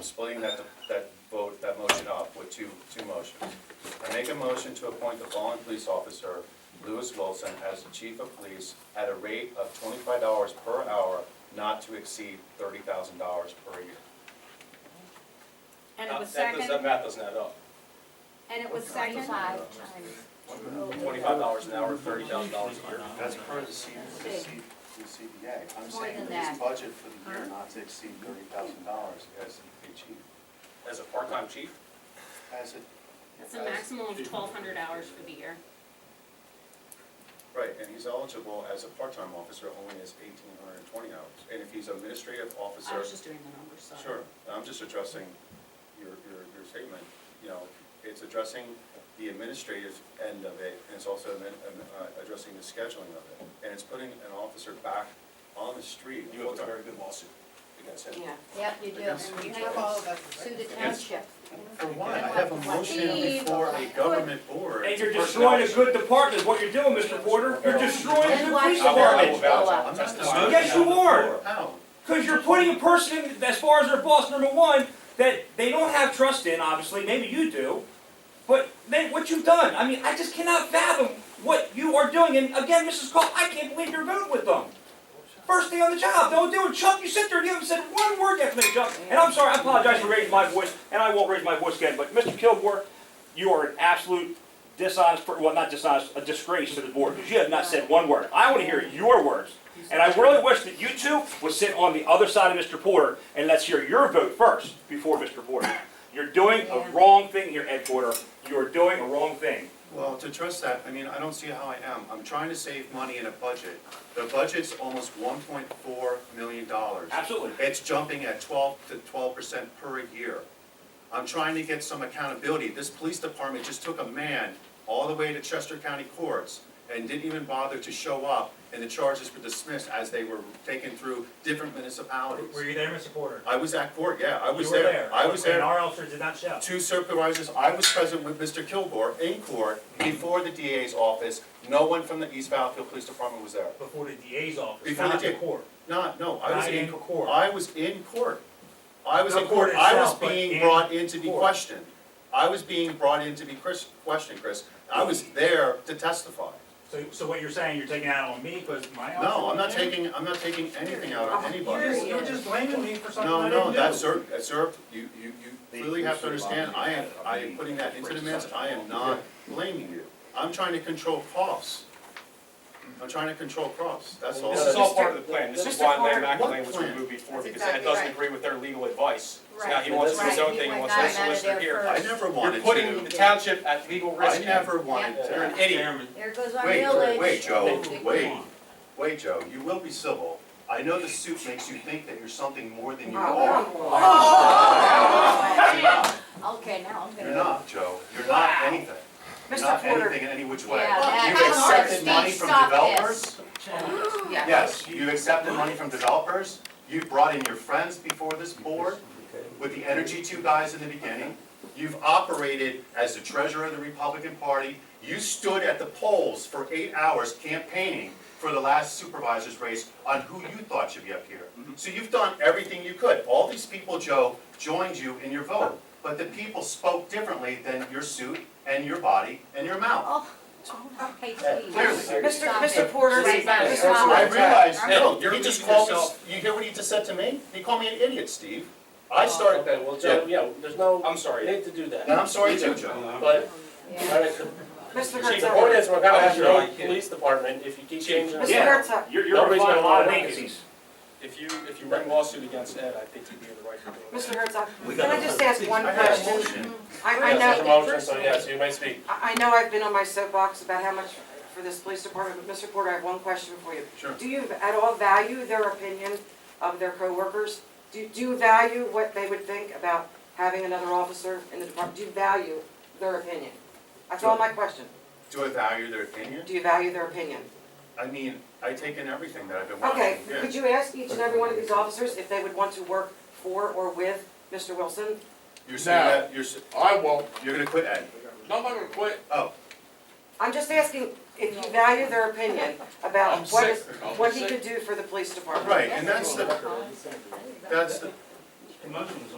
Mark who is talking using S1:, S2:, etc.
S1: splitting that, that vote, that motion up with two, two motions. I make a motion to appoint the following police officer, Lewis Wilson, as the chief of police at a rate of twenty-five dollars per hour, not to exceed thirty thousand dollars per year.
S2: And it was
S1: That does- That
S2: second,
S1: math doesn't add up.
S2: and it was second.
S3: Twenty-five times.
S1: Twenty-five dollars an hour, thirty thousand dollars a year.
S4: That's per the C, the C, the CBA. I'm
S3: More
S4: saying
S3: than
S4: that his
S3: that.
S4: budget for the year not to exceed thirty thousand dollars as a chief,
S1: As a part-time chief?
S4: as it.
S5: That's a maximum of twelve hundred hours for the year.
S1: Right, and he's eligible as a part-time officer only as eighteen hundred and twenty hours. And if he's administrative
S5: I
S1: officer,
S5: was just doing the numbers, sorry.
S1: sure, I'm just addressing your, your, your statement. You know, it's addressing the administrative end of it, and it's also admin- um, uh, addressing the scheduling of it. And it's putting an officer back on the street.
S6: You have a
S1: full-time.
S6: very good lawsuit against him.
S2: Yeah.
S3: Yep, you do. And you have to sue the township.
S4: For one, I have a motion before a government board.
S7: And you're destroying a good department, is what you're doing, Mr. Porter. You're destroying a
S3: Then
S7: good
S3: why
S7: police
S3: should ours
S7: department.
S3: go
S4: I'm
S3: up?
S4: not
S7: Yes, you are.
S4: How?
S7: Because you're putting a person, in as far as their boss, number one, that they don't have trust in, obviously, maybe you do. But then what you've done, I mean, I just cannot fathom what you are doing. And again, Mrs. Cole, I can't believe you're voting with them. First day on the job, don't do it. Chuck, you sit there and you haven't said one word yet from that job. And I'm sorry, I apologize for raising my voice, and I won't raise my voice again, but Mr. Kilgore, you are an absolute dishonest, per- well, not dishonest, a disgrace to the board, because you have not said one word. I want to hear your words. And I really wish that you two would sit on the other side of Mr. Porter, and let's hear your vote first, before Mr. Porter. You're doing a wrong thing here, Ed Porter. You are doing a wrong thing.
S4: Well, to trust that, I mean, I don't see how I am. I'm trying to save money in a budget. The budget's almost one point four million dollars.
S7: Absolutely.
S4: It's jumping at twelve to twelve percent per year. I'm trying to get some accountability. This police department just took a man all the way to Chester County Courts and didn't even bother to show up, and the charges were dismissed as they were taken through different
S8: Were
S4: municipalities.
S8: you there, Mr. Porter?
S4: I was at court, yeah, I was
S8: You were
S4: there. I was there
S8: And our officer did not show.
S4: two supervisors, I was present with Mr. Kilgore in court before the DA's office. No one from the East Battlefield Police Department was there.
S8: Before the DA's office,
S4: Before the
S8: not the
S4: DA.
S8: court.
S4: Not, no, I was
S8: Not
S4: in
S8: in court.
S4: court. I was in court. I was
S8: Not
S4: in court.
S8: court
S4: I was
S8: itself, but
S4: being
S8: in
S4: brought in to be
S8: court.
S4: questioned. I was being brought in to be Chris, questioned, Chris. I was there to testify.
S8: So, so what you're saying, you're taking it out on me because my officer.
S4: No, I'm not
S8: wasn't there?
S4: taking, I'm not taking anything out of anybody.
S8: You're, you're just blaming me for something I
S4: No,
S8: didn't do.
S4: no, that's, sir, that's, sir, you, you, you clearly have to understand, I am, I am putting that into the mix, I am not blaming you. I'm trying to control costs. I'm trying to control costs, that's all.
S6: This is all part of the plan, this is why Lamb
S4: What
S6: McElwain was
S4: plan?
S6: removed before,
S3: That's
S6: because Ed
S3: exactly
S6: doesn't
S3: right.
S6: agree with their legal advice. So now he
S3: Right,
S6: wants to do his
S3: right.
S6: own
S3: He
S6: thing, he
S3: went
S6: wants to
S3: out of
S6: solicitor
S3: there
S6: here.
S4: I never
S6: You're
S4: wanted
S6: putting the
S4: to,
S6: township at legal
S4: I
S6: risk. Ed.
S4: never wanted
S3: Yeah.
S4: to.
S6: You're an idiot.
S3: There goes our
S4: Wait,
S3: millage.
S4: Wait, Joe, wait, wait, Joe, you will be civil. I know the suit makes you think that you're something more than you are. You're not,
S3: Okay, now I'm gonna.
S4: you're not, Joe, you're not anything. You're not anything in any which way.
S3: Yeah, that-
S4: You
S3: come on,
S4: accepted money
S3: Steve,
S4: from
S3: stop this.
S4: developers? Yes, you accepted money from developers, you brought in your friends before this board with the Energy Two guys in the beginning. You've operated as the treasurer of the Republican Party, you stood at the polls for eight hours campaigning for the last supervisor's race on who you thought should be up here. So you've done everything you could, all these people, Joe, joined you in your vote, but the people spoke differently than your suit and your body and your mouth.
S3: Oh, okay,
S4: Clearly.
S3: please.
S9: Mr.
S3: Stop
S9: Mr.
S3: it.
S9: Porter,
S3: Please,
S9: Mr.
S3: Mr.
S9: Porter.
S3: Holland.
S4: I realize,
S6: Right.
S4: no,
S6: You're
S4: he just
S6: repeating
S4: called me,
S6: yourself.
S4: you hear what he just said to me? He called me an idiot, Steve. I
S6: Oh.
S4: started,
S10: Okay, well, Joe, yeah, there's no,
S6: I'm sorry.
S10: you hate to do that,
S4: and I'm sorry too,
S10: Me too.
S6: Uh,
S4: Joe.
S10: but, all
S3: Yeah.
S10: right, so-
S9: Mr.
S10: see, the
S9: Herzog.
S10: point is, we're gonna have your own
S6: Chief.
S10: police department if you keep changing.
S9: Mr.
S10: it.
S9: Herzog.
S7: You're, you're
S10: Nobody's
S7: applying a
S10: gonna
S7: lot of
S10: wanna look at
S7: vacancies.
S6: If you, if you bring lawsuit against Ed, I think you'd be in the right to do it.
S9: Mr. Herzog, can I just ask one
S4: I had a
S9: question?
S4: motion.
S9: I, I
S10: Yes, there's a
S9: know,
S10: motion, so yes, you may speak.
S9: I I know I've been on my soapbox about how much for this police department, but Mr. Porter, I have one question for you.
S4: Sure.
S9: Do you at all value their opinion of their coworkers? Do, do you value what they would think about having another officer in the department? Do you value their opinion? That's all my question.
S4: Do I value their opinion?
S9: Do you value their opinion?
S4: I mean, I take in everything that I've been watching.
S9: Okay,
S4: yeah.
S9: could you ask each and every one of these officers if they would want to work for or with Mr. Wilson?
S4: You're saying
S10: No.
S4: that, you're, s-
S10: I won't,
S4: you're gonna quit, Ed?
S10: no, I'm not gonna quit.
S4: Oh,
S9: I'm just asking if you value their opinion about
S6: I'm
S9: what is,
S6: sick.
S9: what he could do for the police department.
S4: right, and that's the, that's the,
S8: Emotions